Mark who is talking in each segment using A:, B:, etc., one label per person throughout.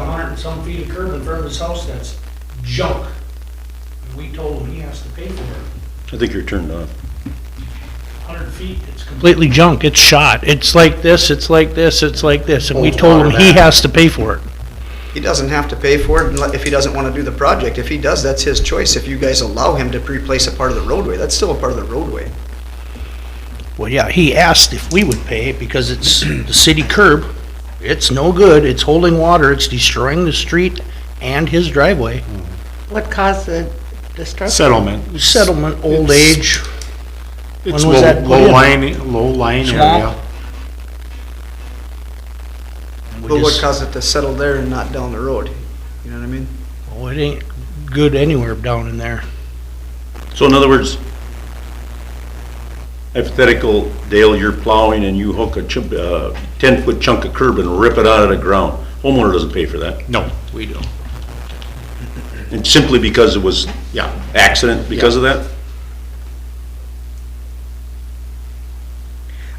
A: and some feet of curb in front of his house that's junk. And we told him he has to pay for it.
B: I think you're turned off.
A: Hundred feet, it's complete.
C: completely junk, it's shot, it's like this, it's like this, it's like this, and we
D: Holds
C: told him
D: water
C: he
D: back.
C: has to pay for it.
D: He doesn't have to pay for it unle- if he doesn't want to do the project. If he does, that's his choice. If you guys allow him to replace a part of the roadway, that's still a part of the roadway.
C: Well, yeah, he asked if we would pay because it's the city curb, it's no good, it's holding water, it's destroying the street and his driveway.
E: What caused the destruction?
F: Settlement.
C: Settlement, old
F: It's-
C: age,
F: It's
C: When was
F: low,
C: that put
F: low
C: in?
F: lying, low lying area.
C: Swamp. and we
D: But what
C: just,
D: caused it to settle there and not down the road? You know what I mean?
C: oh, it ain't good anywhere down in there.
B: So in other words, hypothetical, Dale, you're plowing and you hook a chunk, uh, ten-foot chunk of curb and rip it out of the ground. Homeowner doesn't pay for that.
F: No, we don't.
B: And simply because it was, yeah, accident because of that?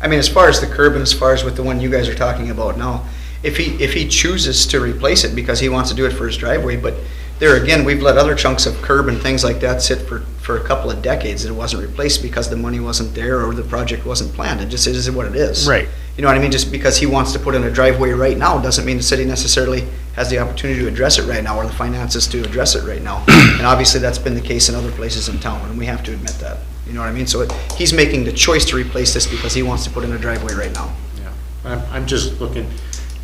D: I mean, as far as the curb and as far as with the one you guys are talking about now, if he, if he chooses to replace it because he wants to do it for his driveway, but there again, we've let other chunks of curb and things like that sit for, for a couple of decades that it wasn't replaced because the money wasn't there or the project wasn't planned. It just is what it is.
C: Right.
D: You know what I mean? Just because he wants to put in a driveway right now doesn't mean the city necessarily has the opportunity to address it right now or the finances to address it right now. And obviously, that's been the case in other places in town, and we have to admit that. You know what I mean? So it- he's making the choice to replace this because he wants to put in a driveway right now.
F: Yeah. I'm, I'm just looking,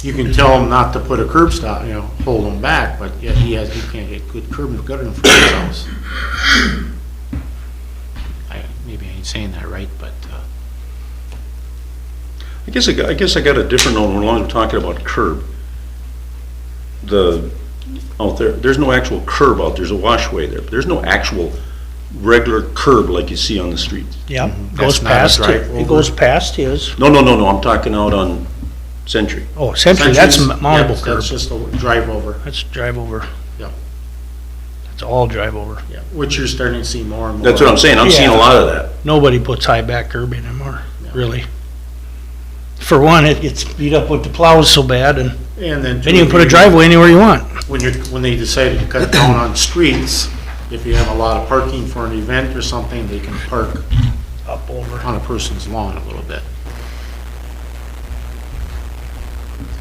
F: you can tell him not to put a curb stop, you know, hold him back, but yet he has, he can't get good curb and gutter in front of his house. I, maybe I ain't saying that right, but, uh,
B: I guess, I got- I guess I got a different one, when I'm talking about curb. The, out there, there's no actual curb out, there's a washway there, but there's no actual regular curb like you see on the streets.
C: Yeah,
F: Mm-hmm. That's
C: goes
F: not a
C: past,
F: drive
C: it.
F: over.
C: it goes past his,
B: No, no, no, no, I'm talking out on Century.
C: oh, essentially, that's
F: Centuries,
C: mountable
F: yes,
C: curb,
F: That's just a drive over,
C: that's drive over.
F: Yeah.
C: That's all drive over.
F: yeah, which you're starting to see more and more.
B: That's what I'm saying, I'm seeing a
C: Yeah.
B: lot of that.
C: nobody puts high back curb in anymore,
F: No.
C: really. For one, it gets beat up with the plows so bad, and
F: And then.
C: then you can put a
F: two,
C: driveway anywhere you want.
F: When you're, when they decided to cut down on streets, if you have a lot of parking for an event or something, they can park
C: Up over.
F: on a person's lawn a little bit.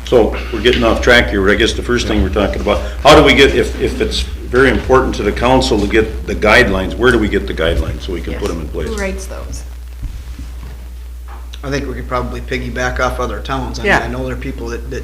B: So we're getting off track here, but I guess the first thing we're talking about, how do we get, if, if it's very important to the council to get the guidelines, where do we get the guidelines so we can put them in place?
G: Who writes those?
D: I think we could probably piggyback off other towns. I mean,
E: Yeah.
D: I know there are people that, that,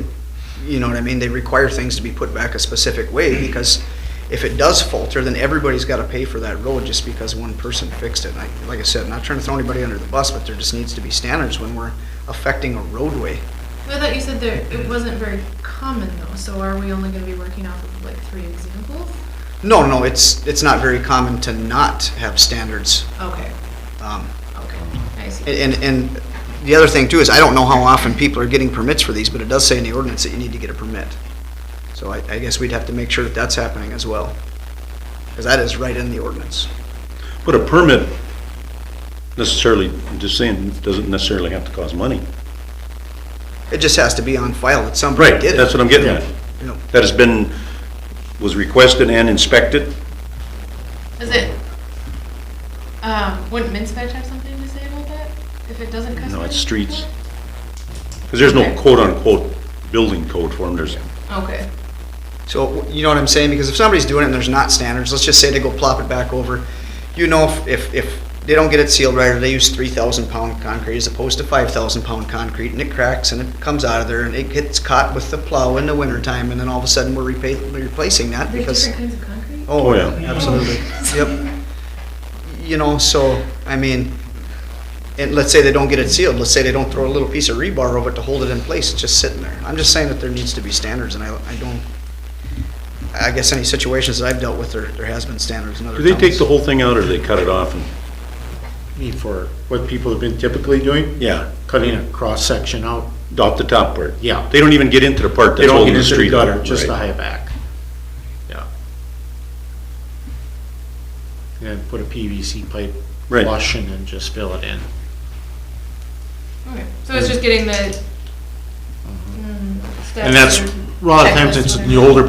D: you know what I mean, they require things to be put back a specific way because if it does falter, then everybody's gotta pay for that road just because one person fixed it. And I, like I said, not trying to throw anybody under the bus, but there just needs to be standards when we're affecting a roadway.
G: I thought you said there, it wasn't very common though, so are we only gonna be working off of like three examples?
D: No, no, it's, it's not very common to not have standards.
G: Okay,
D: Um,
G: okay, I see.
D: and, and- and the other thing too is I don't know how often people are getting permits for these, but it does say in the ordinance that you need to get a permit. So I, I guess we'd have to make sure that that's happening as well. Cause that is right in the ordinance.
B: But a permit necessarily, I'm just saying, doesn't necessarily have to cost money.
D: It just has to be on file that somebody
B: Right,
D: did it.
B: that's what I'm getting at.
D: you know.
B: That has been, was requested and inspected.
G: Is it, um, wouldn't Minspec have something to say about that? If it doesn't customize?
B: No, it's streets. Because there's no
G: Okay.
B: quote-unquote building code for them, there's,
G: Okay,
D: So, you know what I'm saying? Because if somebody's doing it and there's not standards, let's just say they go plop it back over. You know, if, if, if they don't get it sealed right, or they use three thousand pound concrete as opposed to five thousand pound concrete, and it cracks and it comes out of there and it gets caught with the plow in the wintertime, and then all of a sudden we're repa- replacing that
G: there's
D: because.
G: different kinds of concrete?
B: Oh, yeah.
D: Absolutely, yep. You know, so, I mean, and let's say they don't get it sealed, let's say they don't throw a little piece of rebar over it to hold it in place, it's just sitting there. I'm just saying that there needs to be standards, and I, I don't, I guess any situations that I've dealt with, there, there has been standards in other
B: do they take the
D: towns.
B: whole thing out or do they cut it off? and-
F: mean, for what people have been typically doing,
B: Yeah,
F: cutting a cross-section out,
B: off the top part.
F: yeah.
B: They don't even get into the part
F: They
B: that's
F: don't
B: holding the
F: get into
B: street.
F: the
B: up,
F: gutter, just
B: right.
F: the high back. Yeah. And put a PVC pipe
B: Right.
F: flush and then just fill it in.
G: Okay, so it's just getting the. mm,
F: And that's,
G: steps or
F: a lot of times
G: checklists,
F: it's
G: whatever.
F: the older